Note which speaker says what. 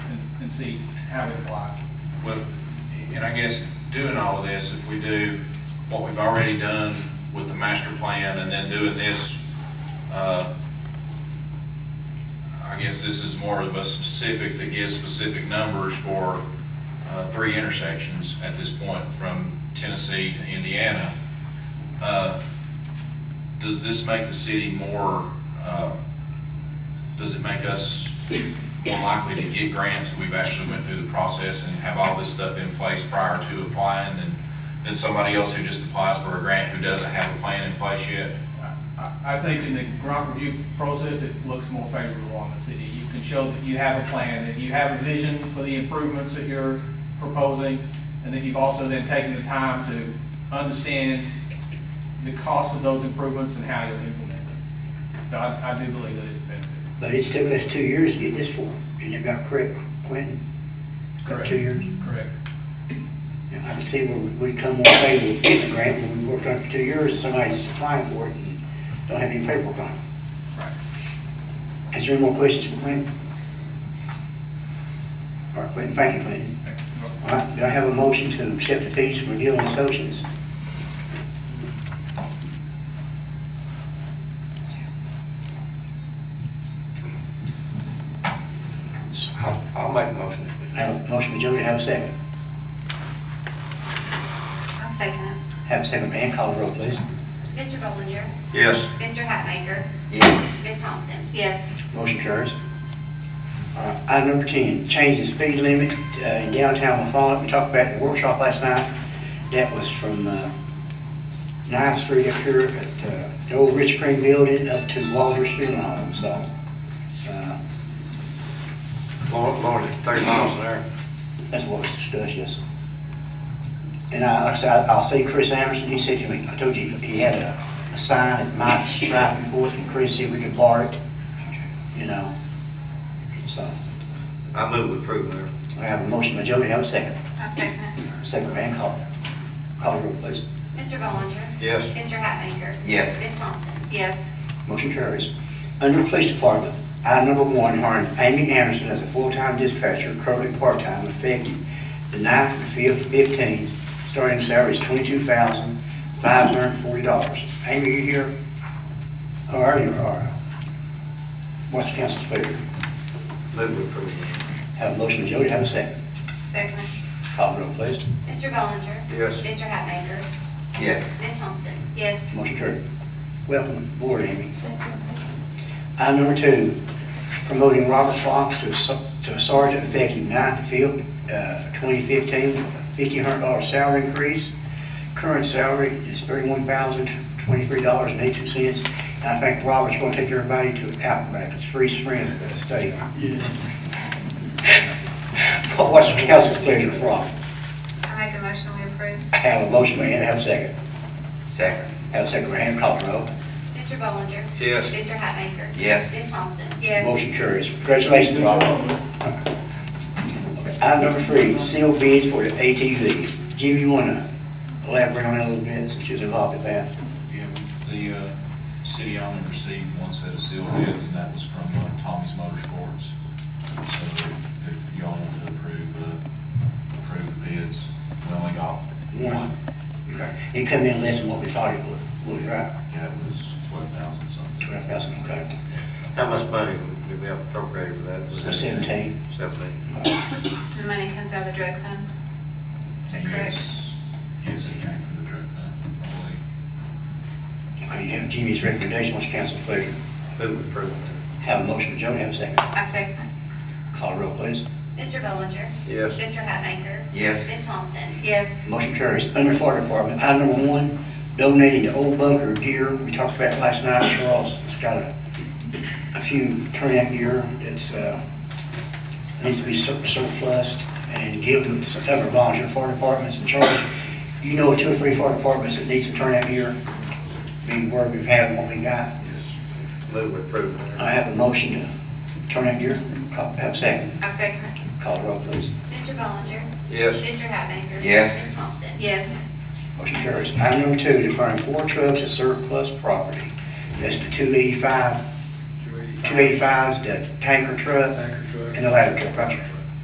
Speaker 1: and see how it applies.
Speaker 2: Well, and I guess doing all of this, if we do what we've already done with the master plan and then doing this, uh, I guess this is more of a specific, that gives specific numbers for uh, three intersections at this point from Tennessee to Indiana. Uh, Does this make the city more, uh, does it make us more likely to get grants if we've actually went through the process and have all this stuff in place prior to applying than, than somebody else who just applies for a grant who doesn't have a plan in place yet?
Speaker 1: I- I, I think in the grant review process, it looks more favorable on the city. You can show that you have a plan, that you have a vision for the improvements that you're proposing, and that you've also then taken the time to understand the cost of those improvements and how you'll implement them. So I, I do believe that it's a benefit.
Speaker 3: But it's took us two years to get this for, and it got correct, when, about two years.
Speaker 1: Correct.
Speaker 3: And I can see where we come one way with getting a grant, when we worked on it for two years, and somebody's applying for it and don't have any paperwork on it.
Speaker 1: Right.
Speaker 3: Is there any more questions for Quentin? All right, Quentin, thank you, Quentin. All right, do I have a motion to accept the fees from Deal and Associates?
Speaker 4: I'll, I'll make a motion.
Speaker 3: I have a motion by Jody, do I have a second.
Speaker 5: I'll second it.
Speaker 3: Have a second, man, call the roll, please.
Speaker 5: Mr. Bollinger,
Speaker 4: Yes.
Speaker 5: Mr. Hatmaker? Yes. Ms. Thompson? Yes.
Speaker 3: Motion carries. All right, Item number 10, change the speed limit uh, in downtown Wafallen. We talked about it in the workshop last night. That was from uh, Ninth Street up here at uh, the old Rich Crane Building up to Walter Funeral Home, so. uh,
Speaker 4: Lower, lower to thirty miles an hour.
Speaker 3: That's what was discussed, yes. And I, like I said, I- I'll see Chris Anderson, he said to me, I told you, he had a, a sign at Mike's right before, and Chris said we could borrow it, you know, so.
Speaker 4: I move with approve, Mayor.
Speaker 3: I have a motion by Jody, have a second.
Speaker 5: I'll second it.
Speaker 3: Second, Van Calder. Call the roll, please.
Speaker 5: Mr. Bollinger,
Speaker 4: Yes.
Speaker 5: Mr. Hatmaker?
Speaker 4: Yes.
Speaker 5: Ms. Thompson? Yes.
Speaker 3: Motion carries. Under Police Department, item number one, hiring Amy Anderson as a full-time dispatcher, currently part-time, effective the ninth and fifth, fifteen, starting salary is twenty-two thousand, five hundred and forty dollars. Amy, you here? How are you, all right? What's the council's pleasure?
Speaker 4: Move with approve, Mayor.
Speaker 3: Have a motion, Jody, have a second.
Speaker 5: Second it.
Speaker 3: Call the roll, please.
Speaker 5: Mr. Bollinger,
Speaker 4: Yes.
Speaker 5: Mr. Hatmaker?
Speaker 4: Yes.
Speaker 5: Ms. Thompson? Yes.
Speaker 3: Motion carried. Welcome aboard, Amy. Item number two, promoting Robert Fox to ser- to sergeant effective ninth field, uh, 2015, $1,500 salary increase. Current salary is $31,023.82. And I think Robert's going to take everybody to Outback, it's free spring at the state. Yes. What's the council's pleasure, Rob?
Speaker 5: I make a motion we approve.
Speaker 3: I have a motion, may I have a second?
Speaker 4: Second.
Speaker 3: Have a second, Graham, call the roll.
Speaker 5: Mr. Bollinger,
Speaker 4: Yes.
Speaker 5: Mr. Hatmaker?
Speaker 4: Yes.
Speaker 5: Ms. Thompson? Yes.
Speaker 3: Motion carries. Congratulations, Rob. Okay, Item number three, sealed bids for the ATV. Jim, you want to elaborate on that a little bit since you're involved with that?
Speaker 2: Yeah, the uh, city only received one set of sealed bids, and that was from uh, Tommy's Motorsports. So if y'all want to approve, uh, approve the bids, we only got one.
Speaker 3: It come in less than what we thought it would, would, right?
Speaker 2: Yeah, it was twelve thousand something.
Speaker 3: Twelve thousand, okay.
Speaker 4: How much money do we have appropriated for that?
Speaker 3: So seventeen.
Speaker 4: Seventeen.
Speaker 5: The money comes out of the drug fund? that correct?
Speaker 2: Yes, yes, it came from the drug fund, I believe.
Speaker 3: Okay, you have Jimmy's recommendation, what's council's pleasure?
Speaker 4: Move with approve, Mayor.
Speaker 3: Have a motion, Jody, have a second.
Speaker 5: I second
Speaker 3: Call the roll, please.
Speaker 5: Mr. Bollinger,
Speaker 4: Yes.
Speaker 5: Mr. Hatmaker?
Speaker 4: Yes.
Speaker 5: Ms. Thompson? Yes.
Speaker 3: Motion carries. Under Fire Department, item number one, donating the old bunker gear. We talked about it last night, Charles has got a, a few turnout gear that's, uh, needs to be sur- surplus and given to other volunteer fire departments. And Charles, you know two or three fire departments that need some turnout gear. Be where we've had what we got.
Speaker 4: Move with approve, Mayor.
Speaker 3: I have a motion to turnout gear. Call- Have a second.
Speaker 5: I second it.
Speaker 3: Call the roll, please.
Speaker 5: Mr. Bollinger,
Speaker 4: Yes.
Speaker 5: Mr. Hatmaker?
Speaker 4: Yes.
Speaker 5: Ms. Thompson? Yes.
Speaker 3: Motion carries. Item number oh two, declaring four trucks as surplus property. That's the two eighty-five, two eighty-fives, the tanker truck,
Speaker 6: Tanker truck.
Speaker 3: and the ladder truck, right?